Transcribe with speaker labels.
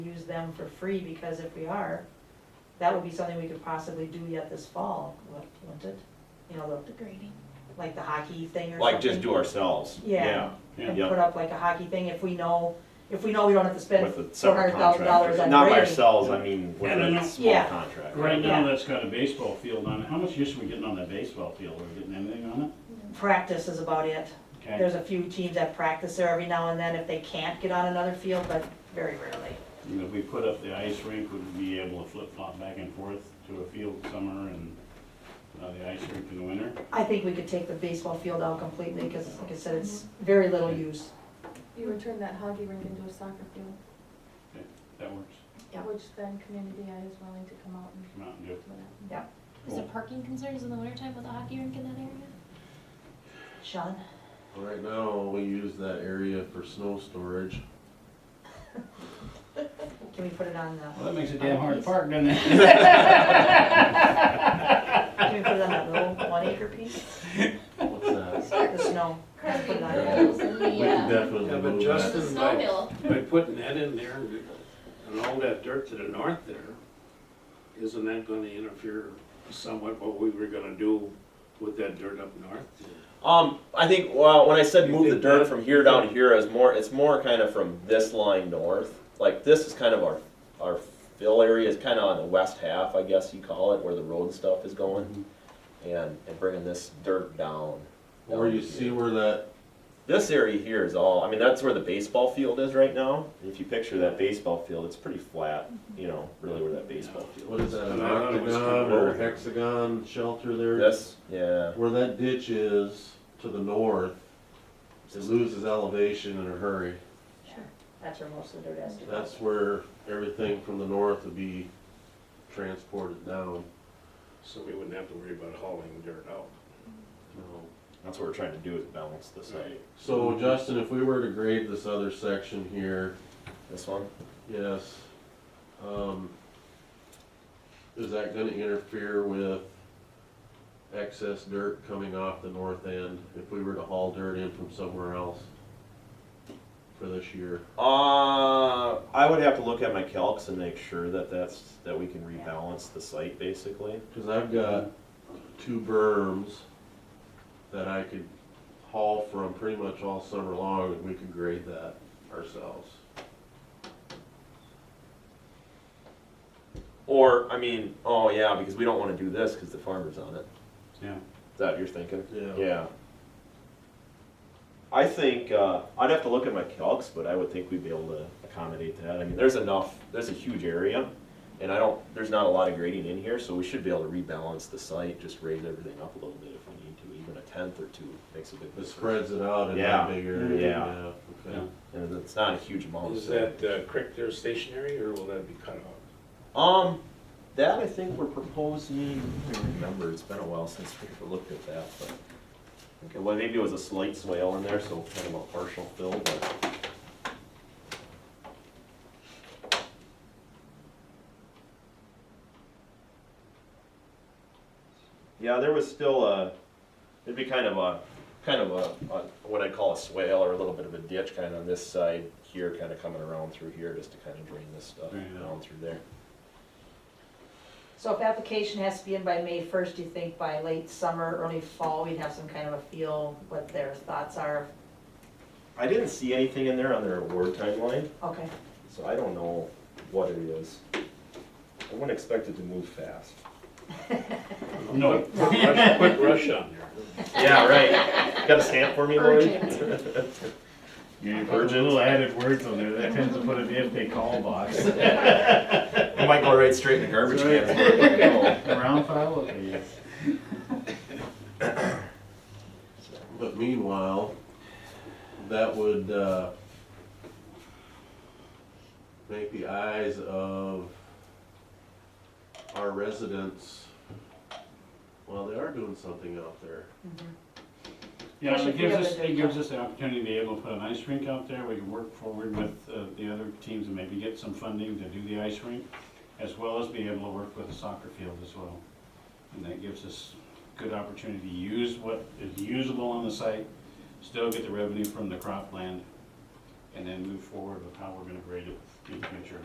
Speaker 1: use them for free, because if we are, that would be something we could possibly do yet this fall, wou- wouldn't it? You know,
Speaker 2: The grading.
Speaker 1: the, like the hockey thing or something.
Speaker 3: Like just do ourselves, yeah,
Speaker 1: Yeah.
Speaker 3: yeah.
Speaker 1: And put up like a hockey thing if we know, if we know we don't have to spend
Speaker 3: With the
Speaker 1: four
Speaker 3: separate
Speaker 1: hundred thousand dollars
Speaker 3: contractors,
Speaker 1: on grading.
Speaker 3: not by ourselves, I mean, with
Speaker 4: Yeah, no, no.
Speaker 3: a small
Speaker 1: Yeah.
Speaker 3: contract.
Speaker 4: Right now,
Speaker 1: Yeah.
Speaker 4: that's got a baseball field on it. How much use are we getting on that baseball field? Are we getting anything on it?
Speaker 1: Practice is about it.
Speaker 4: Okay.
Speaker 1: There's a few teams that practice there every now and then if they can't get on another field, but very rarely.
Speaker 4: And if we put up the ice rink, would we be able to flip flop back and forth to a field summer and uh, the ice rink in the winter?
Speaker 1: I think we could take the baseball field out completely, because like I said, it's very little use.
Speaker 5: You would turn that hockey rink into a soccer field,
Speaker 4: That works.
Speaker 1: Yeah.
Speaker 5: which then community I is willing to come out and
Speaker 4: Come out and do it.
Speaker 5: do that.
Speaker 2: Is there
Speaker 4: Cool.
Speaker 2: parking concerns in the wintertime with the hockey rink in that area?
Speaker 1: Sean?
Speaker 6: Right now, we use that area for snow storage.
Speaker 1: Can we put it on the,
Speaker 4: Well, that makes it damn hard to park, doesn't it?
Speaker 1: can we put it on that little one acre piece?
Speaker 6: What's that?
Speaker 1: The snow. Let's put it on there.
Speaker 6: holes We can definitely
Speaker 7: Yeah, but
Speaker 6: move
Speaker 7: just-
Speaker 6: that.
Speaker 7: The snow hill. By putting that in there and- and all that dirt to the north there, isn't that gonna interfere somewhat what we were gonna do with that dirt up north?
Speaker 3: Um, I think, well, when I said
Speaker 7: You
Speaker 3: move the
Speaker 7: think
Speaker 3: dirt
Speaker 7: that-
Speaker 3: from here down to here, is more, it's more kind of from this line north. Like this is kind of our, our fill area is kind of on the west half, I guess you call it, where the road stuff is going. And, and bringing this dirt down.
Speaker 6: Or you see Mm-hmm. where that,
Speaker 3: This area here is all, I mean, that's where the baseball field is right now. If you picture that baseball field, it's pretty flat, you know, really where that baseball field.
Speaker 6: what is that, an
Speaker 7: And I thought it was
Speaker 6: octagon
Speaker 7: converted.
Speaker 6: or hexagon shelter there?
Speaker 3: This, yeah.
Speaker 6: Where that ditch is to the north, it loses elevation in a hurry.
Speaker 1: That's where most of the dirt has to go.
Speaker 6: That's where everything from the north would be transported down.
Speaker 7: So we wouldn't have to worry about hauling dirt out.
Speaker 6: you know.
Speaker 3: That's what we're trying to do is balance this out.
Speaker 6: So Justin, if we were to grade this other section here,
Speaker 3: This one?
Speaker 6: Yes. Um, Is that gonna interfere with excess dirt coming off the north end if we were to haul dirt in from somewhere else for this year?
Speaker 3: Uh, I would have to look at my calcs and make sure that that's, that we can rebalance the site basically.
Speaker 6: Cause I've got two berms that I could haul from pretty much all summer long and we could grade that ourselves.
Speaker 3: Or, I mean, oh yeah, because we don't wanna do this, cause the farmer's on it.
Speaker 4: Yeah.
Speaker 3: Is that what you're thinking?
Speaker 6: Yeah.
Speaker 3: Yeah. I think, uh, I'd have to look at my calcs, but I would think we'd be able to accommodate that. I mean, there's enough, there's a huge area. And I don't, there's not a lot of grading in here, so we should be able to rebalance the site, just raise everything up a little bit if we need to, even a tenth or two makes a big
Speaker 6: It
Speaker 3: difference.
Speaker 6: spreads it out in
Speaker 3: Yeah.
Speaker 6: that big area.
Speaker 3: Yeah.
Speaker 6: Okay.
Speaker 4: Yeah.
Speaker 3: And it's not a huge amount.
Speaker 7: Is
Speaker 3: so-
Speaker 7: that uh, creek there stationary or will that be cut off?
Speaker 3: Um, that I think we're proposing, I don't remember, it's been a while since we looked at that, but. Okay, well, maybe it was a slight swale in there, so kind of a partial fill, but. Yeah, there was still a, it'd be kind of a, kind of a, a- what I call a swale or a little bit of a ditch kind of on this side here, kind of coming around through here, just to kind of drain this stuff
Speaker 4: Drain it out.
Speaker 3: down through there.
Speaker 1: So if application has to be in by May first, do you think by late summer, early fall, we'd have some kind of a feel what their thoughts are?
Speaker 3: I didn't see anything in there on their award timeline,
Speaker 1: Okay,
Speaker 3: so I don't know what it is. I wouldn't expect it to move fast.
Speaker 4: No.
Speaker 7: Rush- Quick rush on there.
Speaker 3: Yeah, right. Got a stamp for me, Lloyd?
Speaker 4: You put little added words on there. That tends to put it in if they call box.
Speaker 3: It might go right straight in the garbage can.
Speaker 4: Round file, okay, yes.
Speaker 6: But meanwhile, that would, uh, make the eyes of our residents, well, they are doing something out there.
Speaker 4: Yeah,
Speaker 1: Especially
Speaker 4: it
Speaker 1: if
Speaker 4: gives
Speaker 1: we have
Speaker 4: us,
Speaker 1: the
Speaker 4: it
Speaker 1: dirt
Speaker 4: gives us the opportunity to be able to put an ice rink out there, we can work forward with uh, the other teams and maybe get some funding to do the ice rink, as well as be able to work with the soccer field as well. And that gives us good opportunity to use what is usable on the site, still get the revenue from the cropland, and then move forward with how we're gonna grade it in the future.